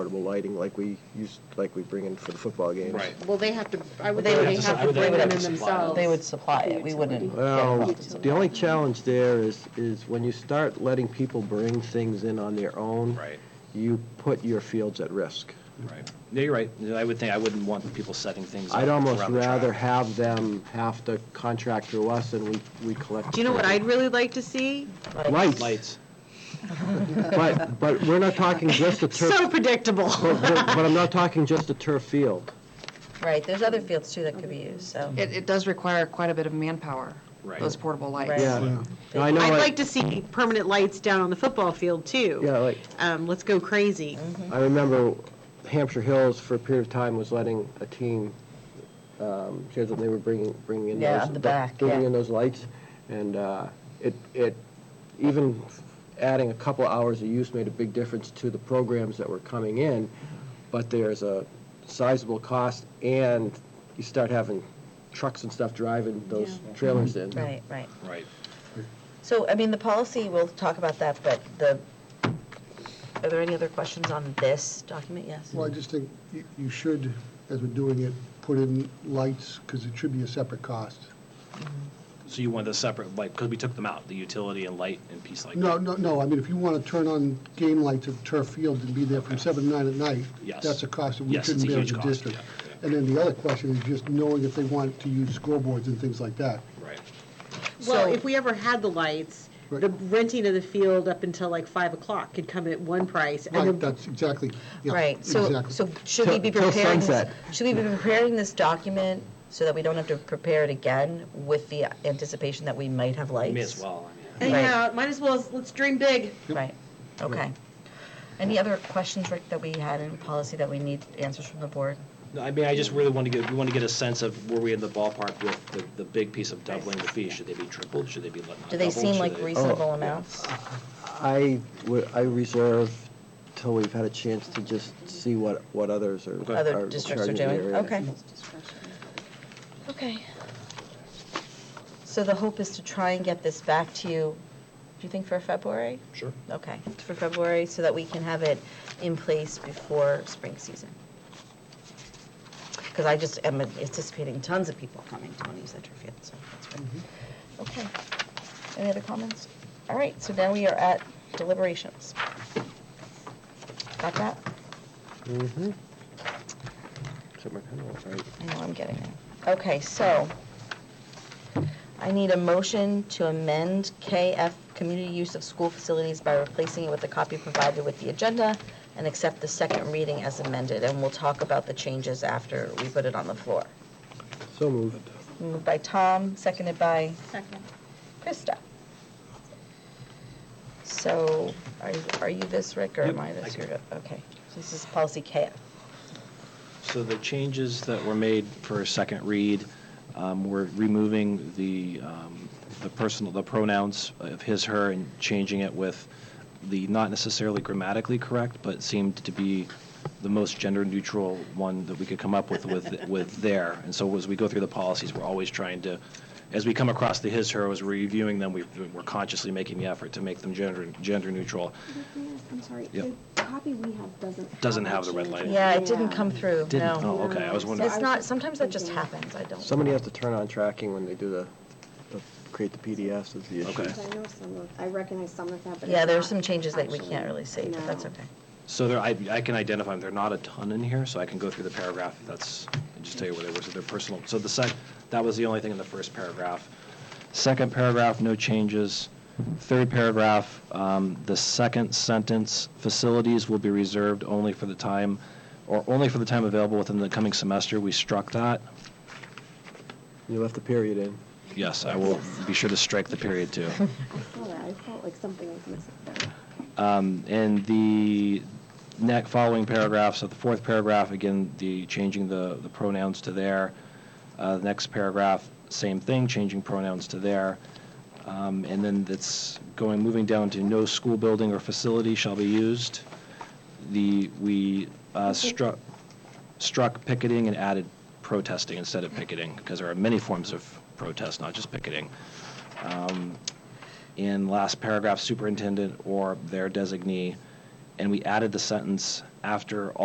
portable lighting like we used, like we bring in for the football games. Right. Well, they have to, I would They think would they have to have supply- to they bring would them have in to supply themselves. They would supply it, we wouldn't. Well, the only challenge there is, is when you start letting people bring things in on their own. Right. You put your fields at risk. Right. No, you're right. I would think, I wouldn't want people setting things up I'd almost around the track. rather have them have to contract through us and we, we collect. Do you know what I'd really like to see? Lights, Lights. but, but we're not talking just a So turf, predictable. but, but but I'm not talking just a turf field. Right, there's other fields too that could be used, so. It, it does require quite a bit of manpower, Right. those portable lights. Right. Yeah. No, I know, I'd I- like to see permanent lights down on the football field, too. Yeah, like, Um, let's go crazy. Mm-hmm. I remember Hampshire Hills for a period of time was letting a team, um, here's what they were bringing, bringing in those. Yeah, the back, Bringing yeah. in those lights, and, uh, it, it, even adding a couple hours of use made a big difference to the programs that were coming in, but there's a sizable cost, and you start having trucks and stuff driving those trailers in. Right, right. Right. So, I mean, the policy, we'll talk about that, but the, are there any other questions on this document? Yes? Well, I just think you- you should, as we're doing it, put in lights, because it should be a separate cost. So you want the separate, like, because we took them out, the utility and light and piece like that. No, no, no, I mean, if you want to turn on game lights at turf field and be there from seven to nine at night, Yes. that's a cost that we Yes, it's couldn't a bear as huge a cost, district. yeah, And then the other question is just knowing if they want to use scoreboards and things like that. Right. Well, So- if we ever had the lights, the renting of the field up until like five o'clock could come at one price. and Right, then- that's exactly, yeah. Right, so, exactly. so should we be Till- till preparing, this- sunset. should we be preparing this document so that we don't have to prepare it again with the anticipation that we might have lights? May as well, I mean. Anyhow, uh, might as well, let's dream big. Right, okay. Any other questions, Rick, that we had in policy that we need answers from the board? No, I mean, I just really want to get, we want to get a sense of where we in the ballpark with the, the big piece of doubling the fee. Should they be tripled? Should they be not Do they doubled? seem Should like they- reasonable amounts? I, would- I reserve till we've had a chance to just see what, what others are. Other districts are charging the doing, area. okay. Okay. So the hope is to try and get this back to you, do you think for February? Sure. Okay, for February, so that we can have it in place before spring season. Because I just am anticipating tons of people coming to want to use that turf field, so that's great. Okay, any other comments? All right, so now we are at deliberations. Got that? Somewhere kind of, right. I know I'm getting it. Okay, so I need a motion to amend KF Community Use of School Facilities by replacing it with the copy provided with the agenda and accept the second reading as amended, and we'll talk about the changes after we put it on the floor. So moved. Moved by Tom, seconded by Second. Krista. So are are you this, Rick, or am I this? You're good. Okay, so this is policy KF. So the changes that were made for a second read, um, we're removing the, um, the personal, the pronouns of his, her, and changing it with the not necessarily grammatically correct, but seemed to be the most gender-neutral one that we could come up with, with, with there. And so as we go through the policies, we're always trying to, as we come across the his, her, as we're reviewing them, we- we're consciously making the effort to make them gender, gender-neutral. I'm sorry, Yep. the copy we have doesn't. Doesn't have the red change. lighting. Yeah, it didn't come through, no. uh, Didn't- Oh, okay, I was wondering. It's not, sometimes that just happens, I don't. Somebody has to turn on tracking when they do the, the- create the PDFs is the issue. Okay. I know some of, I recognize some of that, but. Yeah, it's there are some not changes that we actually- can't really see, but that's No. okay. So there, I, I can identify them, there are not a ton in here, so I can go through the paragraph, if that's, and just tell you where they were, so they're personal. So the sec, that was the only thing in the first paragraph. Second paragraph, no changes. Third paragraph, um, the second sentence, facilities will be reserved only for the time, or only for the time available within the coming semester, we struck that. You left the period in. Yes, I will be sure to strike the period too. I saw that, I felt like something was missing there. Um, And the next, following paragraphs of the fourth paragraph, again, the, changing the, the pronouns to there. Uh, the next paragraph, same thing, changing pronouns to there. Um, and then that's going, moving down to no school building or facility shall be used. The, we uh, struck, struck picketing and added protesting instead of picketing, because there are many forms of protest, not just picketing Um, in last paragraph, superintendent or their designee. and we added the sentence after